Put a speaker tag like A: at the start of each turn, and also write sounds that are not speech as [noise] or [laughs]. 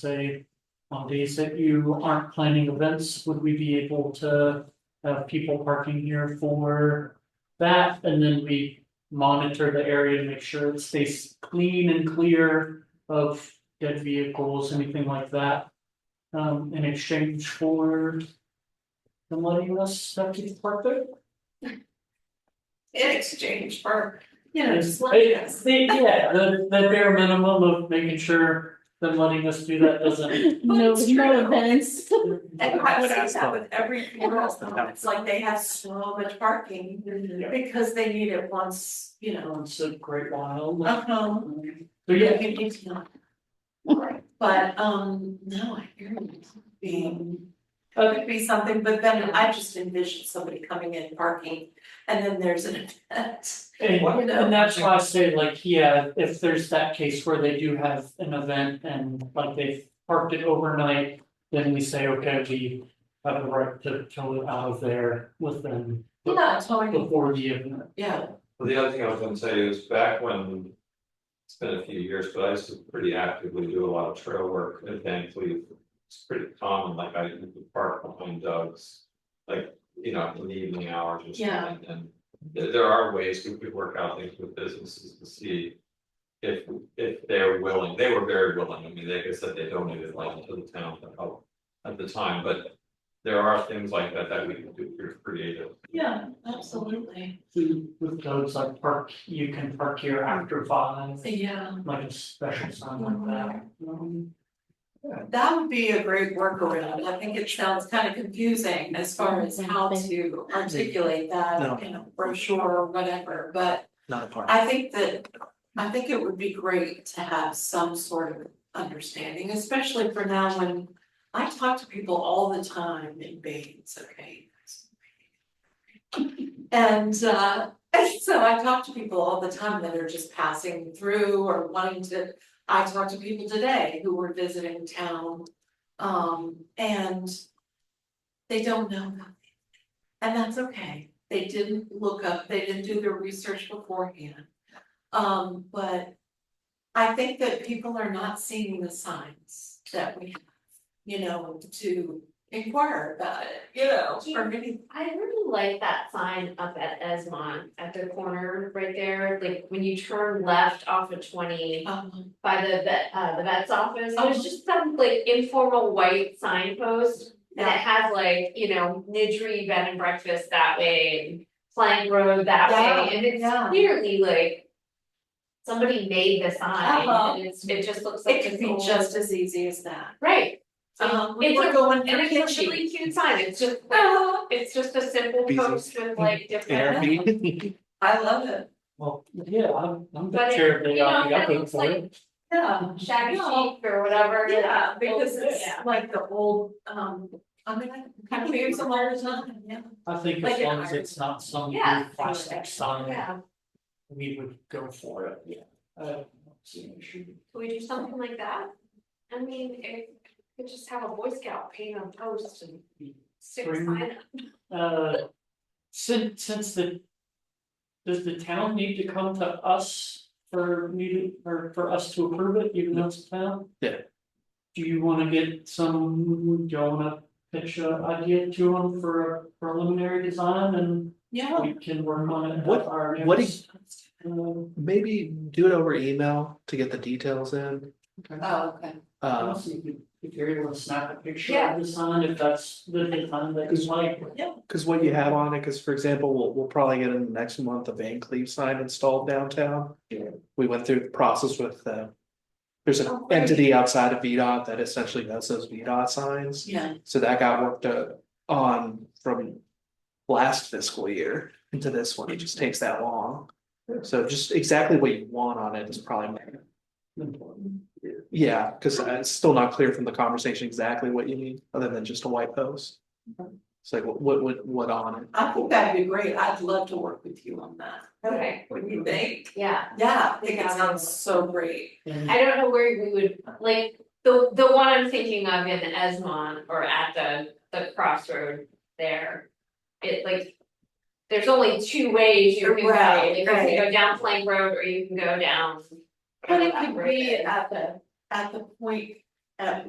A: say, on days that you aren't planning events, would we be able to have people parking here for that? And then we monitor the area to make sure it stays clean and clear of dead vehicles, anything like that. Um, in exchange for them letting us have people park there?
B: in exchange for, you know,
A: Yes.
B: just letting
A: I-
B: us.
A: the- Yeah, the the bare minimum of making sure them letting us do that doesn't.
B: No-
C: No,
B: it's no true.
C: no events.
B: And I see that with every funeral home, it's like they have so much parking because they need it once, you know,
A: It's a great while.
B: a home.
A: But yeah,
B: But, um, no, I hear you being, it
A: okay,
B: could be something, but then I just envision somebody coming in parking and then there's an event.
A: and and that's why I say like, yeah, if there's that case where they do have an event and like they've parked it overnight. Then we say, okay, we have the right to tow it out of there with them
B: Yeah, totally,
A: before the event.
B: yeah,
D: Well, the other thing I was gonna say is back when. It's been a few years, but I used to pretty actively do a lot of trail work and thankfully it's pretty common, like I would park behind Doug's. Like, you know, in the evening hours or
B: Yeah.
D: something, and there there are ways we could work out things with businesses to see. If if they're willing, they were very willing, I mean, like I said, they donated land to the town to help at the time, but. There are things like that that we can do here creative.
B: yeah, absolutely,
A: We- With codes like park, you can park here after five,
B: yeah.
A: like a special sign like that. Um,
B: That would be a great workaround, I think it sounds kind of confusing as far as how to articulate that in a brochure or whatever, but. Not a part. I think that, I think it would be great to have some sort of understanding, especially for now when. I talk to people all the time in Bates, okay? And uh, [laughs] so I talk to people all the time that are just passing through or wanting to I talked to people today who were visiting town, um, and they don't know nothing. And that's okay, they didn't look up, they didn't do their research beforehand. Um, but I think that people are not seeing the signs that we have, you know, to inquire about it, you know, for many.
E: I really like that sign up at Esmond at the corner right there, like when you turn left off of twenty
B: Um,
E: by the vet, uh, the vet's office,
B: Oh.
E: there's just some like informal white signpost. That has like, you know, Nidri Bed and Breakfast that way, and Plank Road that
B: Yeah,
E: way, and it's
B: yeah.
E: clearly like. Somebody made the sign
B: Uh-huh.
E: and it's, it just looks like
B: It
E: it's
B: could be
E: old-
B: just as easy as that.
E: Right,
B: Um, we
E: It's
B: were
E: a-
B: going
E: and
B: for
E: it's a
B: kitchen.
E: really cute sign, it's just like it's just a simple
F: Business.
E: post with like different.
F: Airbnb.
B: [laughs] I love it.
A: Well, yeah, I'm I'm the
E: But it-
A: chair of the
E: you know,
A: I
E: it
A: think
E: looks
A: for
E: like-
A: it.
B: Yeah.
E: Shaggy
B: No.
E: chic or whatever.
B: Yeah, because it's
E: Yeah.
B: like the old, um, I mean, I kind of use them all the time, yeah.
A: I think
B: like
A: as
B: an
A: long as
B: iron.
A: it's not some
E: Yeah.
A: weird plastic sign,
E: Yeah,
A: we would go for it, yeah. I don't see an issue.
E: could we do something like that? I mean, it could just have a Boy Scout paint on post and stick a
A: Bring-
E: sign up.
A: Uh, since since the. Does the town need to come to us for new, or for us to approve it, even though it's a town?
F: Yeah.
A: Do you wanna get some, do you wanna pitch a idea to them for a preliminary design and
B: Yeah.
A: we can work on it? at
F: Oh. What-
A: our
F: what
A: next, um,
F: Maybe do it over email to get the details in.
B: Oh, okay.
F: Uh,
A: Honestly, if you- if you're able to snap a picture
E: Yeah.
A: of the sign, if that's the design that you like.
F: cause what you have on it, cause for example, we'll, we'll probably get in the next month a Van Cleave sign installed downtown.
A: Yeah.
F: We went through the process with them. There's an
B: Oh, great.
F: entity outside of VDOT that essentially does those VDOT signs,
B: Yeah,
F: so that got worked uh, on from. Last fiscal year into this one, it just takes that long. So just exactly what you want on it is probably
A: important.
F: Yeah, because it's still not clear from the conversation exactly what you need, other than just a white post. It's like, what, what, what- what on it?
B: I think that'd be great. I'd love to work with you on that.
E: Okay.
B: What do you think?
E: Yeah,
B: Yeah, I think it sounds so great.
A: And
E: I don't know where we would, like, the the one I'm thinking of in Esmond or at the the crossroad there. It like, there's only two ways you can go,
B: Right,
E: you can
B: right.
E: go down Plank Road or you can go down.
B: But it
E: that
B: could
E: road
B: be
E: there.
B: at the, at the point at